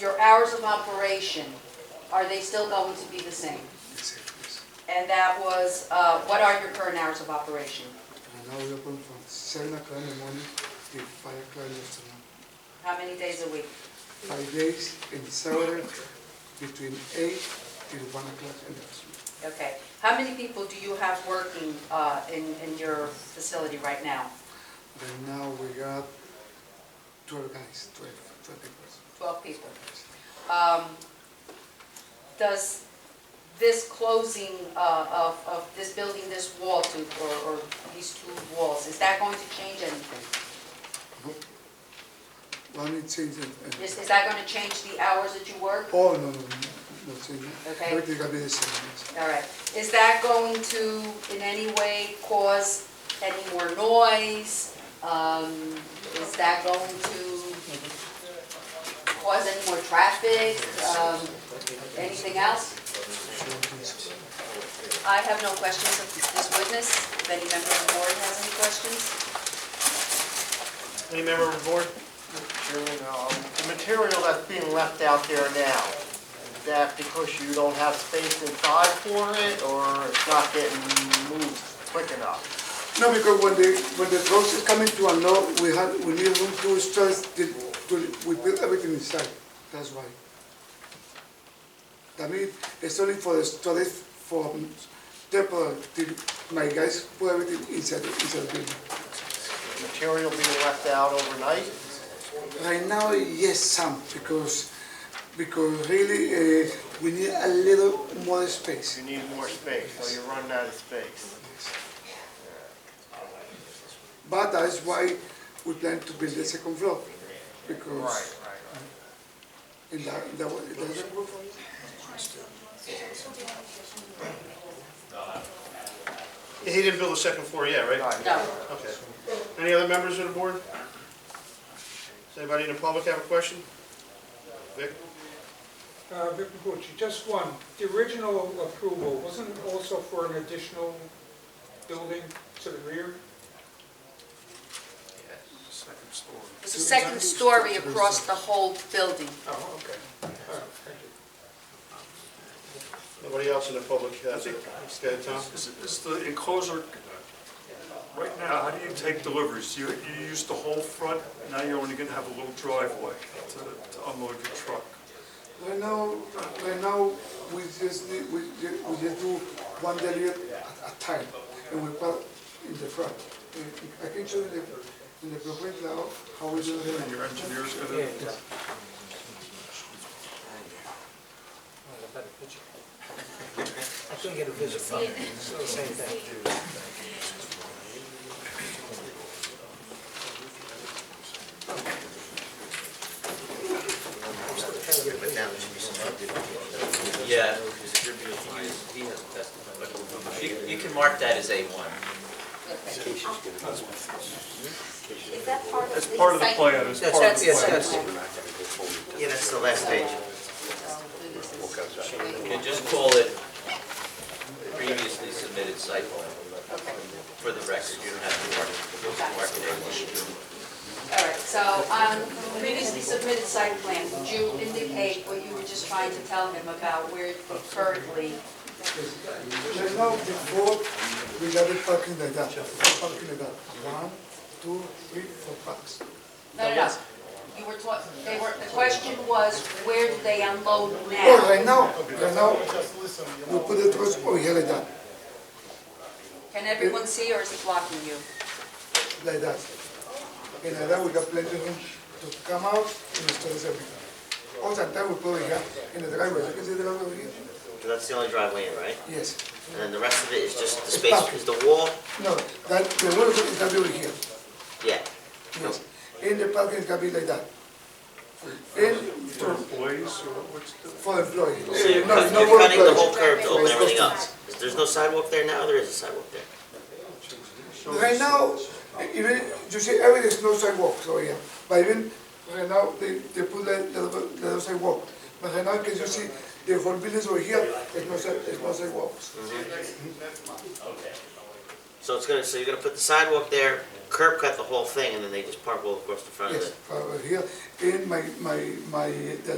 your hours of operation, are they still going to be the same? And that was, uh, what are your current hours of operation? And now we open from seven o'clock in the morning to five o'clock in the afternoon. How many days a week? Five days in Saturday between eight till one o'clock in the afternoon. Okay. How many people do you have working uh, in in your facility right now? Right now we got twelve guys, twelve, twelve people. 12 people. Um, Does this closing uh, of of this building, this wall to, or- or these two walls, is that going to change anything? One is changing. and- Is is that going to change the hours that you work? Oh, no, no, no, no changing. Okay. Everything gonna be the same. yes. All right. Is that going to in any way cause any more noise? Um, Is that going to cause any more traffic? Um, Anything else? I have no questions of this witness. If any member of the board has any questions? Any member of the board? Chairman, um, The material that's being left out there now, is that because you don't have space inside for it, or it's not getting moved quick enough? No, because when the, when the process coming to a law, we had, we need room to stress, the- to, we build everything inside, that's why. That means, it's only for the storage, for um, temporary, till my guys put everything inside, the- inside the building. Material being left out overnight? Right now, yes, some, because, because really, uh, we need a little more space. You need more space, so you're running out of space. But that's why we plan to build the second floor, because right. in that, in that way, it doesn't work. He didn't build a second floor yet, right? No. Okay. Any other members of the board? Does anybody in the public have a question? Vic? Uh, Vic Kikuchi, just one. The original approval, wasn't it also for an additional building to the rear? Second story. It's a second story across the whole building. Oh, okay. All right, thank you. Nobody else in the public has it? Okay, Tom? Is is the enclosure, right now, how do you take deliveries? You, you use the whole front, now you're only gonna have a little driveway to to unload your truck. Right now, right now, we just, need- we, ju- we just do one delivery at a time, and we put in the front. I can show you the, in the blueprint now, how we do And it. your engineer's gonna, I couldn't get a visit from him, so the same thing. Yeah. He hasn't testified. You- You can mark that as A1. Is that part of the? it's part of the site- plan, it's part of That's, the yes, plan. yes. Yeah, that's the last page. You can just call it previously submitted site plan for the record. You don't have to mark it, mark it A1. All right, so on previously submitted site plan, would you indicate what you were just trying to tell him about where currently? Right now, before, we got it parking like that, parking like that, one, two, three, four parks. No, no, no. You were taught, they were, the question was, where do they unload Oh, now? right now, right now, we put the trucks over here like that, Can everyone see or is it blocking you? like that. And like that, we got plenty of room to come out and store everything. All that time, we put it here, in the driveway, you can see the driveway over here? That's the only driveway in, right? Yes. And then the rest of it is just the space- is the wall? No, that, the road is gonna be over here, Yeah. yes. And the parking can be like that. And For employees, or what's the? for employees. So you're Eh, no, cut- no you're more cutting the whole employees. curb to open It's everything custom. up. Is- There's no sidewalk there now, or there is a sidewalk there? Right now, even, you see, everything is no sidewalks over here, but even, right now, they, they put the, the, the sidewalk. But right now, can you see, the whole buildings over here, there's no, si- there's no sidewalks. So it's gonna, so you're gonna put the sidewalk there, curb cut the whole thing, and then they just park all across the front of it? Yes, over here, and my, uh, my, my, the